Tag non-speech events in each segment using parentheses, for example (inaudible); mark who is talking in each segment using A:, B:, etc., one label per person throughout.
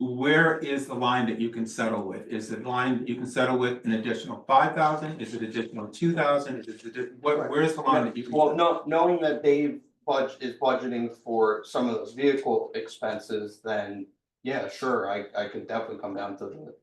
A: Where is the line that you can settle with? Is the line that you can settle with an additional five thousand? Is it additional two thousand? Is it, addi- what, where's the line that you can?
B: Well, no, knowing that Dave budge is budgeting for some of those vehicle expenses, then yeah, sure, I I could definitely come down to the.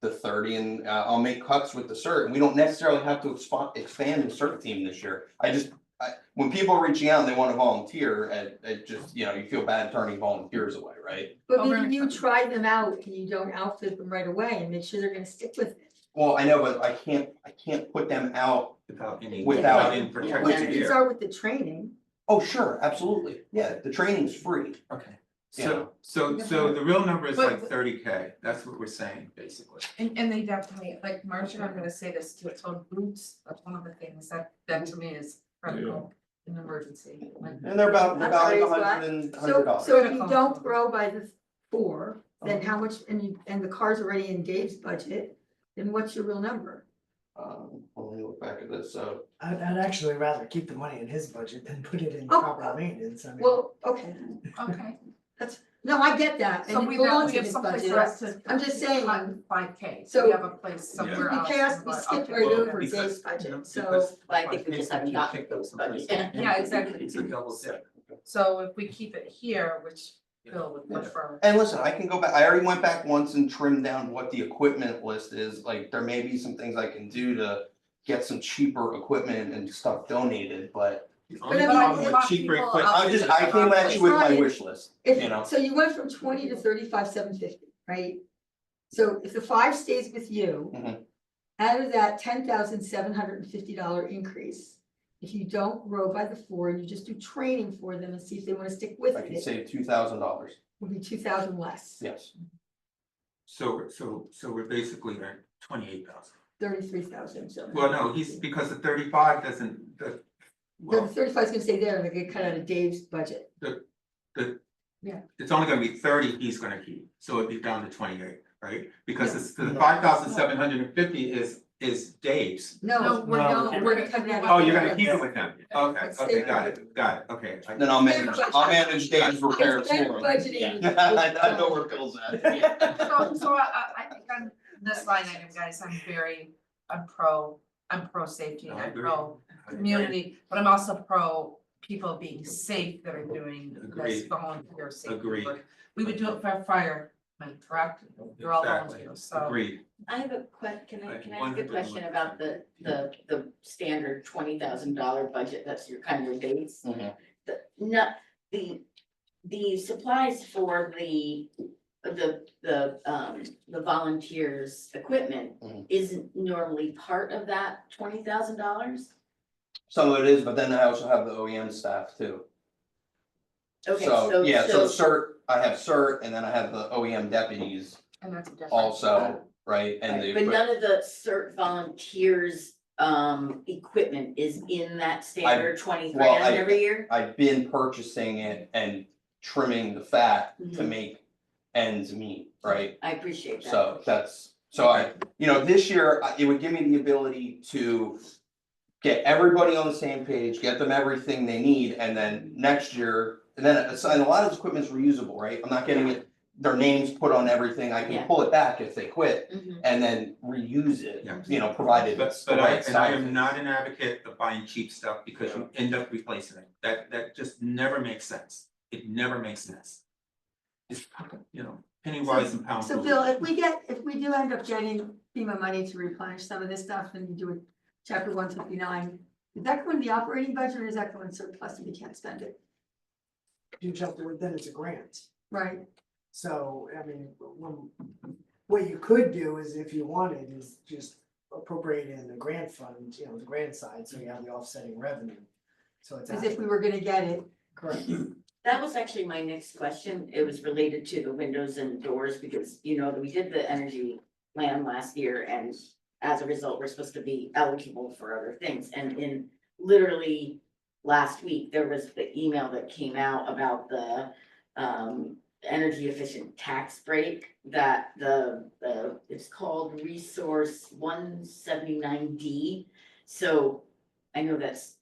B: The thirty and uh, I'll make cuts with the cert, and we don't necessarily have to expand expand the cert team this year, I just. I, when people are reaching out and they wanna volunteer, and it just, you know, you feel bad turning volunteers away, right?
C: But
D: Over
C: maybe you
D: and-
C: try them out and you don't outfit them right away and make sure they're gonna stick with it.
B: Well, I know, but I can't, I can't put them out,
A: Without any.
B: Without-
A: any
B: Yeah,
C: Yeah,
A: protection
C: you
A: here.
C: start with the training.
B: oh, sure, absolutely, yeah, the training's free.
A: Okay.
B: Yeah.
A: So, so, so the real number is
D: But-
A: like thirty K. That's what we're saying, basically.
D: And and they definitely, like Marcia, I'm gonna say this too, it's on boots, that's one of the things that that to me is critical in an emergency. like-
B: And they're about, they're about
C: Upgrades,
B: a
C: right?
B: hundred and, hundred
C: So,
B: dollars.
C: so if you
D: Critical.
C: don't grow by the four, then how much, and you, and the car's already in Dave's budget, then what's your real number?
B: Um, let me look back at this, so,
E: I'd, I'd actually rather keep the money in his budget than put it in
C: Oh,
E: proper maintenance, I mean.
C: Well, okay,
D: Okay,
C: no, I get that,
D: so
C: and
D: we
C: it
D: don't,
C: belongs
D: we
C: in
D: have
C: his
D: someplace
C: budget.
D: for us to.
C: I'm just saying,
D: Five K, so
C: so
D: we have a place somewhere
C: We
D: else.
C: passed, we
D: but-
C: skipped
D: okay.
C: right
A: Well,
C: over
A: because-
C: Dave's budget, so,
A: Because-
F: Well, I think we just haven't gotten those budgets.
D: Yeah, exactly.
A: It's a double dip.
D: So if we keep it here, which Bill would
B: Yeah.
D: prefer,
B: and listen, I can go back, I already went back once and trimmed down what the equipment list is, like, there may be some things I can do to. Get some cheaper equipment and stuff donated, but
A: The
C: I
A: only
C: mean,
A: problem
D: it's
A: with
D: not
A: cheaper
D: people-
A: equipment.
B: I just, I came at you with my wish list, you know.
C: if, so you went from twenty to thirty-five, seven fifty, right? So if the five stays with you,
B: Mhm.
C: out of that ten thousand seven hundred and fifty dollar increase, if you don't grow by the four, and you just do training for them and see if they wanna stick with
B: I can
C: it, it
B: save two thousand dollars,
C: would be two thousand less,
B: yes,
A: So, so, so we're basically at twenty-eight thousand.
C: thirty-three thousand, so.
A: Well, no, he's, because the thirty-five doesn't, the,
C: The
A: well,
C: thirty-five is gonna stay there, and they get cut out of Dave's budget,
A: it's only gonna be thirty he's gonna keep, so it'd be down to twenty-eight, right? Because
D: Yeah.
A: it's, the five thousand seven hundred and fifty is, is Dave's.
D: no,
C: no,
D: we're
E: No.
D: gonna, we're gonna cut that out.
A: Oh, you're gonna keep it with him, okay,
C: It's
A: okay,
C: Dave's.
A: got it, got it, okay. I-
B: then I'll manage, I'll manage Dave's repairs
C: It's
B: for
C: better
B: him.
C: budgeting.
B: I (laughs) I know where Bill's at.
D: (laughs) So so I I I think on this line item, guys, I'm very, I'm pro, I'm pro safety,
A: I
D: I'm
A: agree.
D: pro community, but I'm also pro people being safe that are doing this
A: Agreed.
D: volunteer safety
A: Agreed.
D: work. We would do it for firemen, correct? You're all
A: Exactly.
D: volunteers, so.
A: Agreed,
F: I have a que- can I,
A: I
F: can I ask a
A: 100%
F: question about the, the, the standard twenty thousand dollar budget, that's your kind of base?
B: Mhm.
F: The, not, the, the supplies for the, the, the, um, the volunteers' equipment
B: Mhm.
F: isn't normally part of that twenty thousand dollars?
B: Some of it is, but then I also have the OEM staff too.
F: Okay,
B: So,
F: so,
B: yeah, so
F: so,
B: cert, I have cert and then I have the OEM deputies
D: And that's a difference.
B: also, right, and the.
F: but none of the cert volunteers, um, equipment is in that standard twenty
B: well,
F: grand
B: I-
F: every year?
B: I've been purchasing it and trimming the fat to
F: Mm-hmm.
B: make ends meet, right?
F: I appreciate that.
B: So that's, so I, you know, this year, I- it would give me the ability to get everybody on the same page, get them everything they need, and then next year, and then, it's- and a lot of this equipment's reusable, right? I'm not getting it, their names put on everything, I
F: Yeah.
B: can pull it back if they quit
F: Mhm.
B: and then reuse it,
A: Yeah.
B: you know, provided
A: but,
B: it's the
A: but I,
B: right
A: and I
B: size.
A: am not an advocate of buying cheap stuff because you end up replacing it, that, that just never makes sense, it never makes sense. It's, you know, penny wise and pound
C: So
A: foolish.
C: Bill, if we get, if we do end up getting FEMA money to replenish some of this stuff and do it, chapter one fifty-nine, is that going to the operating budget or is that going surplus if we can't spend it,
E: You jumped with, then it's a grant.
C: right?
E: So, I mean, one, what you could do is if you wanted is just appropriate it in the grant fund, you know, the grant side, so you have the offsetting revenue. So it's.
C: As if we were gonna get it,
E: Correct.
F: That was actually my next question. It was related to the windows and doors because, you know, we did the energy plan last year and as a result, we're supposed to be eligible for other things. And in literally last week, there was the email that came out about the um energy efficient tax break that the the it's called resource one seventy-nine D. So I know that's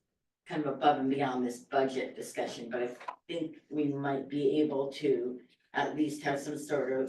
F: kind of above and beyond this budget discussion, but I think we might be able to at least have some sort of